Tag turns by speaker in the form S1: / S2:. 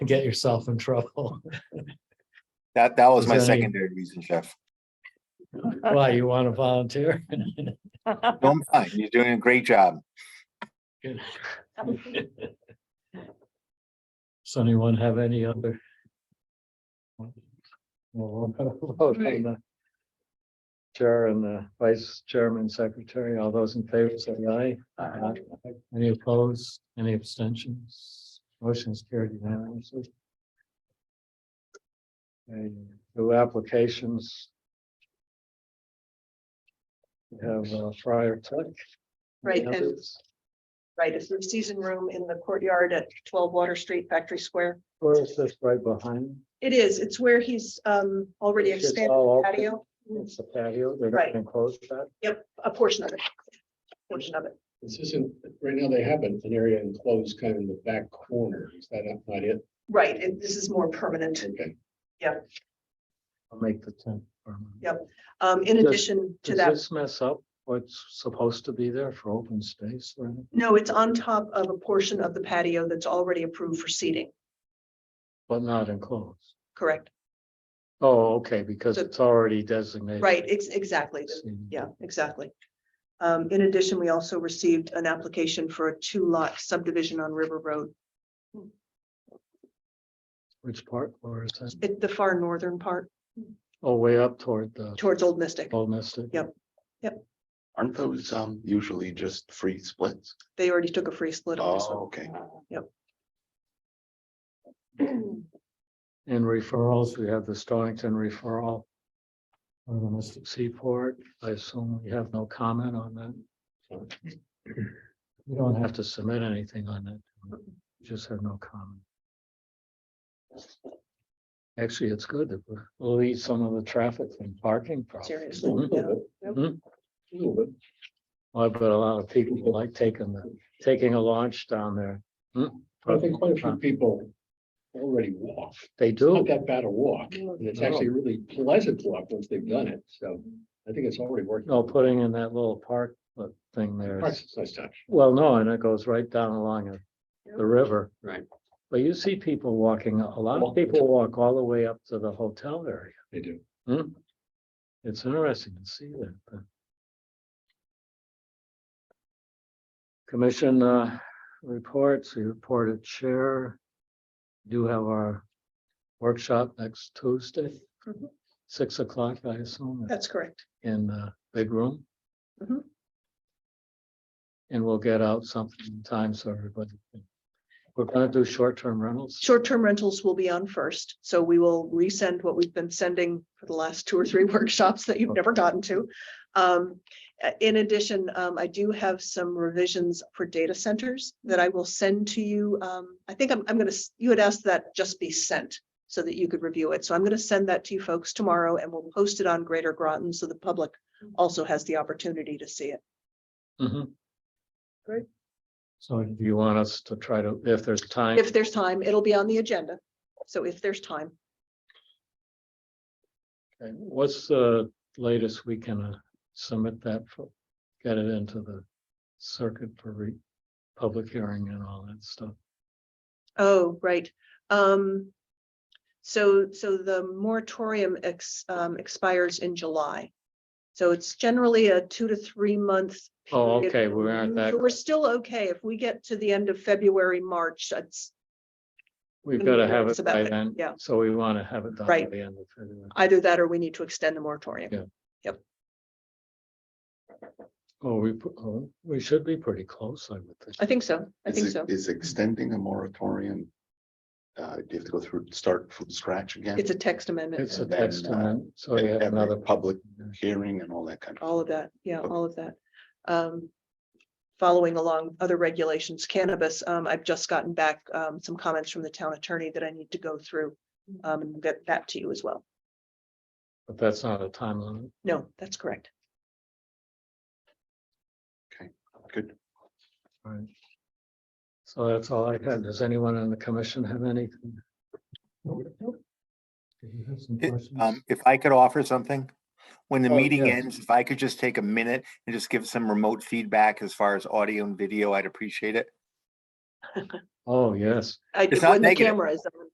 S1: get yourself in trouble.
S2: That, that was
S1: Is
S2: my
S1: there any-
S2: secondary reason, Jeff.
S1: Why, you want to volunteer?
S2: Don't mind, you're doing a great job.
S1: Does anyone have any other? Well, we'll vote on
S3: Right.
S1: the Chair and the vice chairman, secretary, all those in favor say aye. Aye. Any opposed, any abstentions? Motion is carried unanimously. And new applications. We have uh, Friar Tuck.
S3: Right, and-
S1: Others?
S3: Right, it's the season room in the courtyard at twelve Water Street, Factory Square.
S1: Or is this right behind?
S3: It is, it's where he's um already
S1: It's just
S3: expanded
S1: all
S3: the
S1: open.
S3: patio,
S1: It's the patio, they're
S3: Right.
S1: not gonna close that.
S3: a portion of it. Portion of it.
S4: This isn't, right now they have an an area enclosed kind of in the back corner. Is that not not it?
S3: Right, and this is more permanent.
S4: Okay.
S1: I'll make the tent. permanent.
S3: Yep, Um, in
S1: Does-
S3: addition to
S1: Does
S3: that.
S1: this mess up what's supposed to be there for open space? or anything?
S3: No, it's on top of a portion of the patio that's already approved for seating,
S1: But not enclosed.
S3: correct?
S1: Oh, okay, because
S3: So-
S1: it's already designated.
S3: Right, ex- exactly.
S1: Seating.
S3: Yeah, exactly. Um, in addition, we also received an application for a two lot subdivision on River Road,
S1: Which part, or is that,
S3: at the far northern part
S1: oh, way up toward the
S3: towards Old Mystic.
S1: Old Mystic?
S3: Yep.
S5: Aren't those um usually just free splits?
S3: They already took a free split on this
S5: Oh,
S3: one.
S5: okay.
S1: In referrals, we have the Stonington referral. Or the Mystic Seaport, I assume we have no comment on that. We don't have to submit anything on that, We just have no comment. Actually, it's good that we're- we'll lead some of the traffic from parking. problems.
S3: Seriously,
S1: Mm-hmm.
S3: yeah.
S4: A little bit.
S1: I bet a lot of people like taking the, taking a launch down there. Hmm?
S4: I think quite a few people already walk.
S1: They
S4: It's Not
S1: do,
S4: that bad a walk, and it's actually a really pleasant walk once they've done it. So I think it's already working.
S1: no, putting in that little park uh, thing there. is-
S4: Parks is nice touch.
S1: Well, no, and it goes right down along the- the river.
S4: Right.
S1: But you see people walking, a lot of
S4: Walk.
S1: people walk all the way up to the hotel area.
S4: They do.
S1: Hmm. It's interesting to see that. but- Commission uh, reports, we reported chair. Do have our workshop next Tuesday,
S3: Mhm.
S1: six o'clock, I assume
S3: That's correct.
S1: in the big room.
S3: Mhm.
S1: And we'll get out something in time so everybody. can- We're gonna do short-term rentals.
S3: Short-term rentals will be on first, so we will resend what we've been sending for the last two or three workshops that you've never gotten to. Um, uh, in addition, um, I do have some revisions for data centers that I will send to you. Um, I think I'm, I'm gonna, s- you had asked that just be sent so that you could review it. So I'm gonna send that to you folks tomorrow and we'll post it on Greater Groton so the public also has the opportunity to see it.
S1: Mhm.
S3: Great.
S1: So do you want us to try to, if there's time,
S3: If there's time, it'll be on the agenda. So if there's time,
S1: okay, what's the latest we can uh, submit that for? Get it into the circuit for re, public hearing and all that stuff.
S3: Oh, right. Um, so, so the moratorium ex, um, expires in July. So it's generally a two to three month.
S1: Oh,
S3: period.
S1: okay, we aren't that-
S3: So We're still okay. If we get to the end of February, March, that's
S1: We've
S3: Gonna
S1: got to
S3: be
S1: have
S3: nervous
S1: it
S3: about
S1: by
S3: it,
S1: then.
S3: yeah.
S1: So we want to have it done by
S3: Right.
S1: the end of February.
S3: either that or we need to extend the moratorium.
S1: Yeah. Oh, we, pr- oh, we should be pretty close, I would think.
S3: I think so. I
S5: Is
S3: think
S5: it-
S3: so.
S5: Is extending a moratorium? Uh, do you have to go through, start from scratch again?
S3: It's a text amendment,
S1: It's a
S5: then,
S1: text
S5: uh,
S1: amendment,
S4: Oh,
S1: so
S5: and
S1: we have
S5: every
S1: another.
S5: Public hearing and all that kind of.
S3: all of that. Yeah, all of that. Um, following along other regulations, cannabis, um, I've just gotten back, um, some comments from the town attorney that I need to go through. Um, and get that to you as well.
S1: But that's not a time limit.
S3: No, that's correct.
S5: Good.
S1: Right. So that's all I had. Does anyone in the commission have anything? Do you have some
S2: It-
S1: questions?
S2: Um, if I could offer something, when the
S1: Mm. Oh,
S2: meeting
S1: yes.
S2: ends, if I could just take a minute and just give some remote feedback as far as audio and video, I'd appreciate it.
S1: Oh, yes.
S3: I,
S2: It's not
S3: when the
S2: negative.
S3: camera is, on,